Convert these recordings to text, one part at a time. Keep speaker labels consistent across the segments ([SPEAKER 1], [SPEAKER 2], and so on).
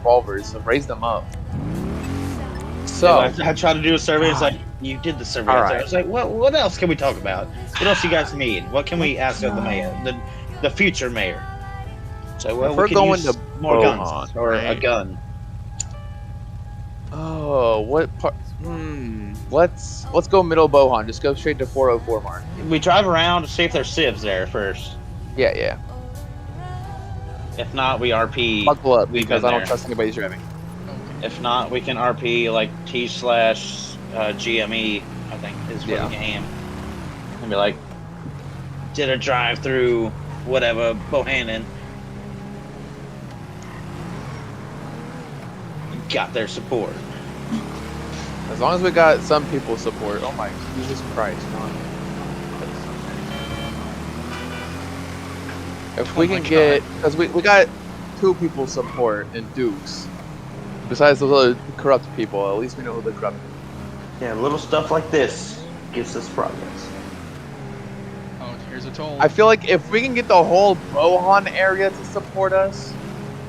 [SPEAKER 1] revolvers, so raise them up. So
[SPEAKER 2] I, I tried to do a survey. It's like you did the survey.
[SPEAKER 1] All
[SPEAKER 2] It's like-
[SPEAKER 1] right.
[SPEAKER 2] It's like what? What else can we talk about? What else you guys need? What can we ask of the mayor, the, the future mayor? So
[SPEAKER 1] If
[SPEAKER 2] well, we
[SPEAKER 1] we're
[SPEAKER 2] can
[SPEAKER 1] going
[SPEAKER 2] use
[SPEAKER 1] to
[SPEAKER 2] more
[SPEAKER 1] Beaumont,
[SPEAKER 2] guns or a
[SPEAKER 1] right?
[SPEAKER 2] gun.
[SPEAKER 1] oh, what part? Hmm. Let's let's go middle Bohan. Just go straight to 404 Mark.
[SPEAKER 2] We drive around to see if there's sieves there first.
[SPEAKER 1] Yeah, yeah.
[SPEAKER 2] If not, we RP.
[SPEAKER 1] Buckle up
[SPEAKER 2] We've
[SPEAKER 1] because
[SPEAKER 2] been
[SPEAKER 1] I don't
[SPEAKER 2] there.
[SPEAKER 1] trust anybody's driving.
[SPEAKER 2] If not, we can RP like T slash uh, GME. I think is for
[SPEAKER 1] Yeah.
[SPEAKER 2] the game. And be like, did a drive through whatever Bohannon. Got their support.
[SPEAKER 1] As long as we got some people support. Oh my Jesus Christ! Ron. If we
[SPEAKER 2] Oh my
[SPEAKER 1] can get, because we, we got two people support in Dukes, besides those other corrupt people. At least we know who the corrupt.
[SPEAKER 2] Yeah, little stuff like this gives us progress.
[SPEAKER 3] Oh, here's a toll.
[SPEAKER 1] I feel like if we can get the whole Bohan area to support us,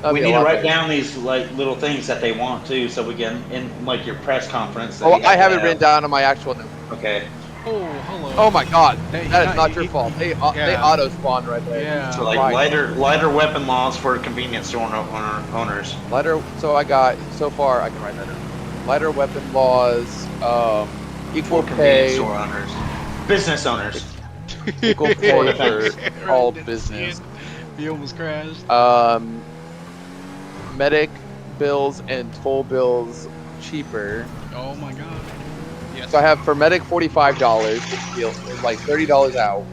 [SPEAKER 1] that'd
[SPEAKER 2] we
[SPEAKER 1] be a
[SPEAKER 2] need to
[SPEAKER 1] lot
[SPEAKER 2] write
[SPEAKER 1] better.
[SPEAKER 2] down these like little things that they want too, so we can in like your press conference. that
[SPEAKER 1] Oh,
[SPEAKER 2] you
[SPEAKER 1] I have
[SPEAKER 2] to
[SPEAKER 1] it written down on my actual note.
[SPEAKER 2] Okay,
[SPEAKER 3] oh, hello.
[SPEAKER 1] Oh my God,
[SPEAKER 3] Hey,
[SPEAKER 1] that
[SPEAKER 3] yeah,
[SPEAKER 1] is not
[SPEAKER 3] you-
[SPEAKER 1] your
[SPEAKER 3] you-
[SPEAKER 1] fault. They au- they
[SPEAKER 3] yeah.
[SPEAKER 1] auto spawned right there.
[SPEAKER 3] Yeah.
[SPEAKER 2] so like
[SPEAKER 1] Right.
[SPEAKER 2] lighter lighter weapon laws for convenience store owner, owners.
[SPEAKER 1] Lighter. So I got so far. I can write that. down. Lighter weapon laws. Um, equal
[SPEAKER 2] convenience
[SPEAKER 1] pay.
[SPEAKER 2] store owners, business owners.
[SPEAKER 1] Equal
[SPEAKER 2] Four
[SPEAKER 1] pay
[SPEAKER 2] defenders.
[SPEAKER 1] for all business.
[SPEAKER 3] He almost crashed.
[SPEAKER 1] Um, medic bills and toll bills cheaper.
[SPEAKER 3] Oh my god. Yes.
[SPEAKER 1] So I have for medic forty-five dollars, like thirty dollars out,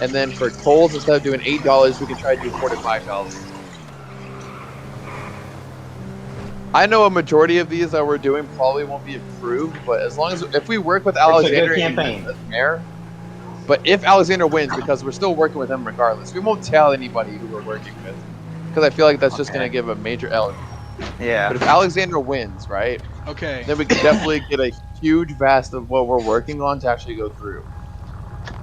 [SPEAKER 1] and then for tolls instead of doing eight dollars, we can try to do forty-five dollars. I know a majority of these that we're doing probably won't be approved, but as long as if we work with
[SPEAKER 2] a good
[SPEAKER 1] Alexander and
[SPEAKER 2] campaign.
[SPEAKER 1] the mayor, but if Alexander wins, because we're still working with him regardless, we won't tell anybody who we're working with, because I feel like that's just
[SPEAKER 2] Okay.
[SPEAKER 1] gonna give a major L.
[SPEAKER 2] Yeah.
[SPEAKER 1] But if Alexander wins, right?
[SPEAKER 3] Okay.
[SPEAKER 1] then we can definitely get a huge vast of what we're working on to actually go through.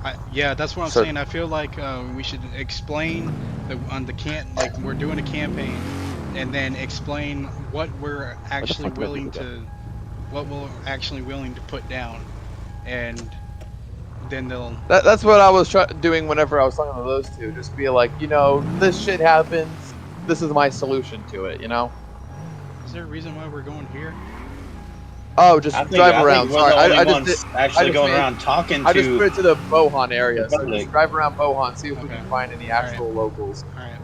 [SPEAKER 3] I, yeah, that's what I'm
[SPEAKER 1] So-
[SPEAKER 3] saying. I feel like uh, we should explain the on the can like we're doing a campaign, and then explain what we're actually
[SPEAKER 1] fuck do I
[SPEAKER 3] willing
[SPEAKER 1] do with
[SPEAKER 3] to, what we're actually willing to put down, and then they'll.
[SPEAKER 1] That, that's what I was try- doing whenever I was talking to those two. Just be like, you know, this shit happens. This is my solution to it. You know.
[SPEAKER 3] Is there a reason why we're going here?
[SPEAKER 1] Oh, just drive around.
[SPEAKER 2] we're
[SPEAKER 1] Sorry,
[SPEAKER 2] the only
[SPEAKER 1] I, I just
[SPEAKER 2] ones
[SPEAKER 1] did,
[SPEAKER 2] actually
[SPEAKER 1] just
[SPEAKER 2] going
[SPEAKER 1] made-
[SPEAKER 2] around talking
[SPEAKER 1] I just put
[SPEAKER 2] to.
[SPEAKER 1] it to the Bohan area. So just
[SPEAKER 2] Republic.
[SPEAKER 1] drive around Bohan, see if we
[SPEAKER 3] Okay.
[SPEAKER 1] can find any
[SPEAKER 3] Alright.
[SPEAKER 1] actual locals.
[SPEAKER 3] All right.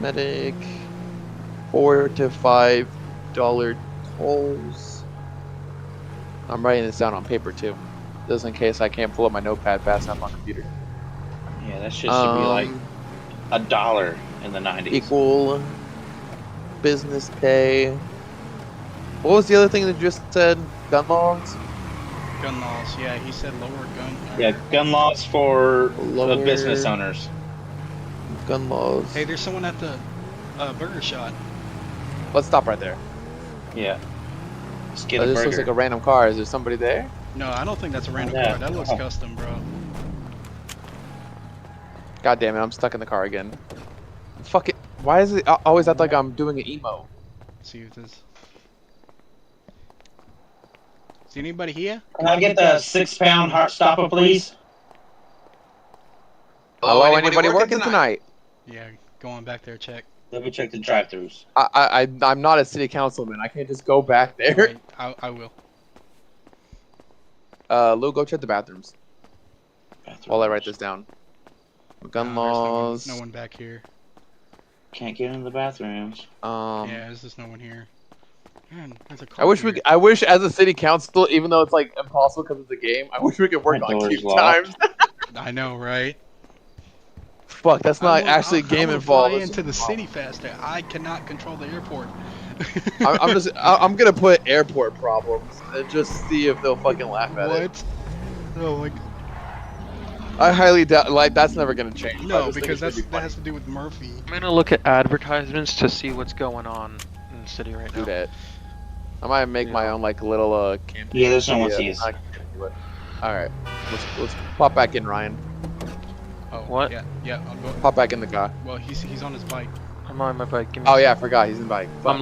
[SPEAKER 1] Medic, four to five dollar tolls. I'm writing this down on paper too, just in case I can't pull up my notepad fast enough on computer.
[SPEAKER 2] yeah, that shit should be like
[SPEAKER 1] Um,
[SPEAKER 2] a dollar in the nineties.
[SPEAKER 1] equal business pay. What was the other thing that you just said? Gun laws?
[SPEAKER 3] Gun laws. Yeah, he said lower gun.
[SPEAKER 2] Yeah, gun laws for
[SPEAKER 1] Lower-
[SPEAKER 2] the business owners.
[SPEAKER 1] Gun laws.
[SPEAKER 3] Hey, there's someone at the uh, burger shot.
[SPEAKER 1] Let's stop right there.
[SPEAKER 2] Yeah. Let's get
[SPEAKER 1] That
[SPEAKER 2] a
[SPEAKER 1] just
[SPEAKER 2] burger.
[SPEAKER 1] Oh, looks like a random car. Is there somebody there?
[SPEAKER 3] No, I don't think that's a random
[SPEAKER 2] Yeah.
[SPEAKER 3] car. That looks
[SPEAKER 2] Oh.
[SPEAKER 3] custom, bro.
[SPEAKER 1] God damn it, I'm stuck in the car again. Fuck it. Why is it I always act like I'm doing an emo?
[SPEAKER 3] see if this. Is anybody here?
[SPEAKER 2] Can I get the six pound heart stopper, please?
[SPEAKER 1] Hello, anybody, working tonight?
[SPEAKER 3] Yeah, going back there, check.
[SPEAKER 2] Let me check the drive throughs.
[SPEAKER 1] I, I, I, I'm not a city councilman. I can't just go back there.
[SPEAKER 3] Alright, I, I will.
[SPEAKER 1] Uh, Lou, go check the bathrooms while I write this down. Gun
[SPEAKER 3] No, there's no one-
[SPEAKER 1] laws.
[SPEAKER 3] No one back here.
[SPEAKER 2] Can't get in the bathrooms.
[SPEAKER 1] Um,
[SPEAKER 3] yeah, there's just no one here. Man, there's a car
[SPEAKER 1] I wish we.
[SPEAKER 3] here.
[SPEAKER 1] c- I wish as a city council, even though it's like impossible because it's a game, I wish we could work
[SPEAKER 2] My
[SPEAKER 1] on
[SPEAKER 2] door's
[SPEAKER 1] queue
[SPEAKER 2] locked.
[SPEAKER 1] times.
[SPEAKER 3] I know, right?
[SPEAKER 1] Fuck, that's
[SPEAKER 3] I
[SPEAKER 1] not
[SPEAKER 3] wanna-
[SPEAKER 1] actually
[SPEAKER 3] I- I
[SPEAKER 1] game
[SPEAKER 3] wanna
[SPEAKER 1] involved.
[SPEAKER 3] Fly
[SPEAKER 1] it's
[SPEAKER 3] into the
[SPEAKER 1] just-
[SPEAKER 3] city faster. I cannot control the airport.
[SPEAKER 1] I- I'm just. I- I'm gonna put airport problems and just see if they'll fucking laugh at it.
[SPEAKER 3] what? Oh my g-
[SPEAKER 1] I highly doubt. Like that's never gonna change. but I
[SPEAKER 3] No,
[SPEAKER 1] just think it's
[SPEAKER 3] because
[SPEAKER 1] gonna
[SPEAKER 3] that's
[SPEAKER 1] be
[SPEAKER 3] that
[SPEAKER 1] funny
[SPEAKER 3] has to do with Murphy.
[SPEAKER 4] I'm gonna look at advertisements to see what's going on in the city right
[SPEAKER 1] to do
[SPEAKER 4] now.
[SPEAKER 1] that. I might make my own like little uh campaign.
[SPEAKER 2] Yeah, there's no one
[SPEAKER 1] idea.
[SPEAKER 2] sees.
[SPEAKER 1] I can do it. All right, let's let's pop back in, Ryan.
[SPEAKER 3] Oh,
[SPEAKER 4] What?
[SPEAKER 3] Yeah, yeah. I'll go.
[SPEAKER 1] Pop back in the car.
[SPEAKER 3] Well, he's he's on his bike.
[SPEAKER 4] I'm on my bike. Give me
[SPEAKER 1] Oh
[SPEAKER 4] a
[SPEAKER 1] yeah, I forgot he's in the bike. Fuck.